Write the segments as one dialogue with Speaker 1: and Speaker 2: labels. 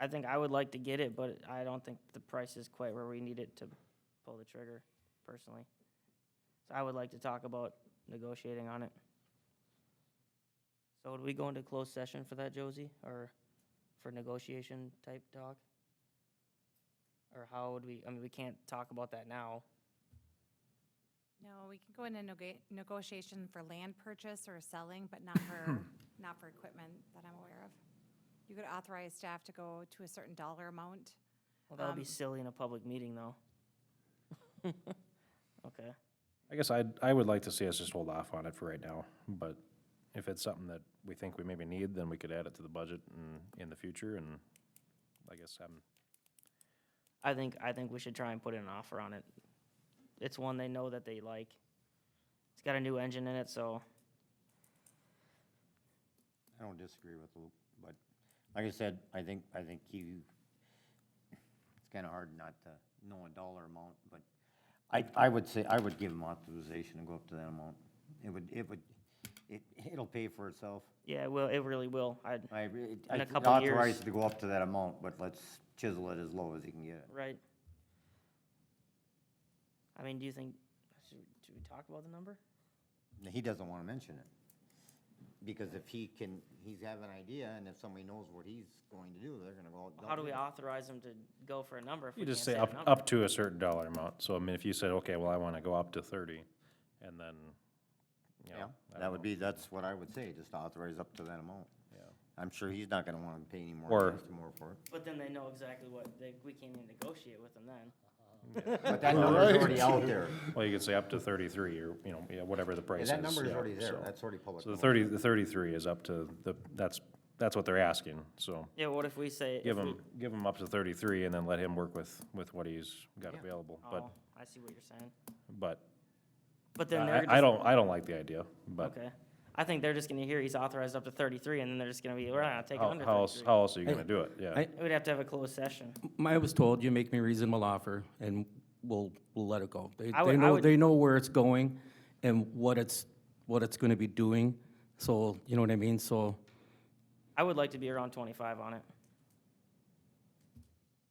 Speaker 1: I think I would like to get it, but I don't think the price is quite where we need it to pull the trigger, personally. So I would like to talk about negotiating on it. So would we go into closed session for that, Josie, or for negotiation type talk? Or how would we, I mean, we can't talk about that now.
Speaker 2: No, we can go into nega- negotiation for land purchase or selling, but not for, not for equipment that I'm aware of. You could authorize staff to go to a certain dollar amount.
Speaker 1: Well, that would be
Speaker 2: Um,
Speaker 1: silly in a public meeting, though. Okay,
Speaker 3: I guess I'd, I would like to see us just hold off on it for right now, but if it's something that we think we maybe need, then we could add it to the budget and in the future, and I guess I'm,
Speaker 1: I think, I think we should try and put in an offer on it. It's one they know that they like. It's got a new engine in it, so
Speaker 4: I don't disagree with Luke, but like I said, I think, I think you, it's kind of hard not to know a dollar amount, but I, I would say, I would give him authorization to go up to that amount. It would, it would, it, it'll pay for itself.
Speaker 1: yeah, it will, it really will. I,
Speaker 4: I, re-
Speaker 1: In
Speaker 4: I
Speaker 1: a couple years.
Speaker 4: authorize it to go up to that amount, but let's chisel it as low as you can get it.
Speaker 1: right? I mean, do you think, should, should we talk about the number?
Speaker 4: And He doesn't want to mention it. Because if he can, he's have an idea, and if somebody knows what he's going to do, they're gonna go out.
Speaker 1: How do we authorize them to go for a number if we
Speaker 3: you
Speaker 1: can't
Speaker 3: just say
Speaker 1: say a
Speaker 3: up,
Speaker 1: number?
Speaker 3: up to a certain dollar amount, so I mean, if you said, okay, well, I wanna go up to thirty, and then, you know.
Speaker 4: Yeah,
Speaker 3: I don't
Speaker 4: that would
Speaker 3: know,
Speaker 4: be, that's what I would say, just authorize up to that amount.
Speaker 3: yeah.
Speaker 4: I'm sure he's not gonna wanna pay any more,
Speaker 3: Or-
Speaker 4: cost more for it.
Speaker 1: But then they know exactly what, they, we can't even negotiate with them then.
Speaker 4: But that number's already out there.
Speaker 3: Well, you could say up to thirty-three, or, you know, yeah, whatever the price
Speaker 4: Yeah,
Speaker 3: is.
Speaker 4: that number's
Speaker 3: yeah,
Speaker 4: already there,
Speaker 3: so-
Speaker 4: that's already public.
Speaker 3: So the
Speaker 4: knowledge.
Speaker 3: thirty, the thirty-three is up to the, that's, that's what they're asking, so.
Speaker 1: Yeah, what if we say?
Speaker 3: Give
Speaker 1: if we-
Speaker 3: him, give him up to thirty-three and then let him work with, with what he's got
Speaker 4: Yeah.
Speaker 3: available, but,
Speaker 1: Oh, I see what you're saying.
Speaker 3: but,
Speaker 1: But then they're
Speaker 3: I,
Speaker 1: just.
Speaker 3: I don't, I don't like the idea, but
Speaker 1: Okay. I think they're just gonna hear he's authorized up to thirty-three, and then they're just gonna be, we're not taking
Speaker 3: how,
Speaker 1: under
Speaker 3: how else,
Speaker 1: thirty-three.
Speaker 3: how else are you gonna do it, yeah?
Speaker 5: I-
Speaker 1: We'd have to have a closed session.
Speaker 5: I was told you make me reasonable offer and we'll, we'll let it go. They,
Speaker 1: I
Speaker 5: they
Speaker 1: would- I
Speaker 5: know,
Speaker 1: would-
Speaker 5: they know where it's going and what it's, what it's gonna be doing. So, you know what I mean? So
Speaker 1: I would like to be around twenty-five on it.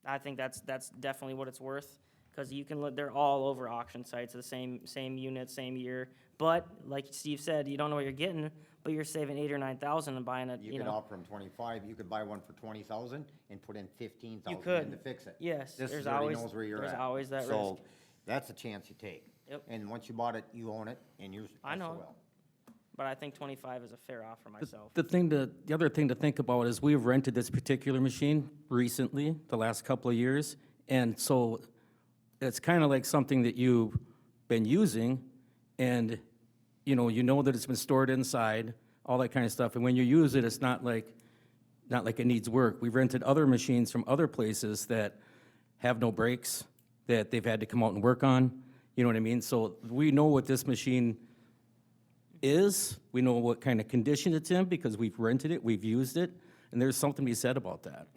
Speaker 1: I think that's, that's definitely what it's worth, cause you can, look- they're all over auction sites, the same, same unit, same year. But, like Steve said, you don't know what you're getting, but you're saving eight or nine thousand and buying it,
Speaker 4: You
Speaker 1: you
Speaker 4: could
Speaker 1: know.
Speaker 4: offer him twenty-five, you could buy one for twenty thousand and put in fifteen
Speaker 1: could.
Speaker 4: thousand to fix it.
Speaker 1: Yes,
Speaker 4: This
Speaker 1: there's
Speaker 4: is already
Speaker 1: always-
Speaker 4: knows where you're
Speaker 1: there's
Speaker 4: at.
Speaker 1: always that
Speaker 4: So,
Speaker 1: risk.
Speaker 4: that's a chance you take.
Speaker 1: Yep.
Speaker 4: And once you bought it, you own it, and you're.
Speaker 1: I know.
Speaker 4: SOL.
Speaker 1: But I think twenty-five is a fair offer myself.
Speaker 5: the thing to, the other thing to think about is we've rented this particular machine recently, the last couple of years. And so it's kind of like something that you've been using and, you know, you know that it's been stored inside, all that kind of stuff. And when you use it, it's not like, not like it needs work. We've rented other machines from other places that have no brakes, that they've had to come out and work on. You know what I mean? So we know what this machine is, we know what kind of condition it's in because we've rented it, we've used it, and there's something to be said about that.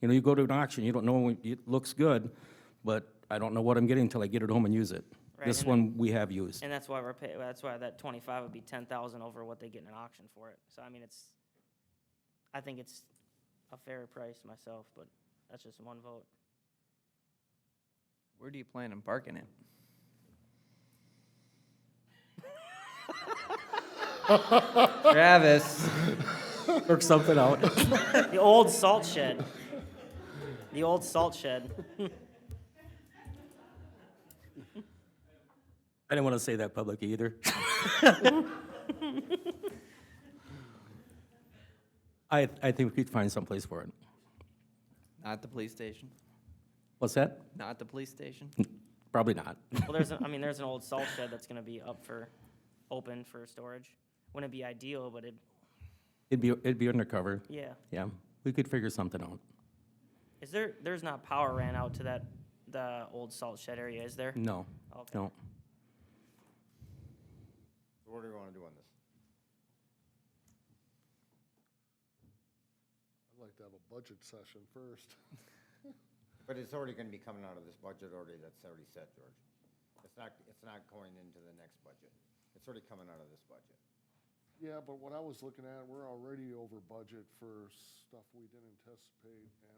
Speaker 5: You know, you go to an auction, you don't know, when- it looks good, but I don't know what I'm getting until I get it home and use it.
Speaker 1: Right,
Speaker 5: This
Speaker 1: and-
Speaker 5: one we have used.
Speaker 1: And that's why we're pay, that's why that twenty-five would be ten thousand over what they get in an auction for it. So I mean, it's, I think it's a fair price myself, but that's just one vote.
Speaker 6: Where do you plan on parking it? Travis,
Speaker 5: Work something out.
Speaker 1: The old salt shed. The old salt shed.
Speaker 5: I didn't want to say that publicly either. I, I think we could find someplace for it.
Speaker 6: not the police station.
Speaker 5: What's that?
Speaker 6: Not the police station.
Speaker 5: Probably not.
Speaker 1: Well, there's, a- I mean, there's an old salt shed that's gonna be up for, open for storage. Wouldn't be ideal, but it,
Speaker 5: It'd be, it'd be undercover.
Speaker 1: yeah.
Speaker 5: Yeah, we could figure something out.
Speaker 1: Is there, there's not power ran out to that, the old salt shed area, is there?
Speaker 5: No,
Speaker 1: Okay.
Speaker 5: no.
Speaker 4: So What do you wanna do on this?
Speaker 7: I'd like to have a budget session first.
Speaker 4: But it's already gonna be coming out of this budget already, that's already set, George. It's not, it's not going into the next budget. It's already coming out of this budget.
Speaker 7: Yeah, but what I was looking at, we're already over budget for stuff we didn't anticipate and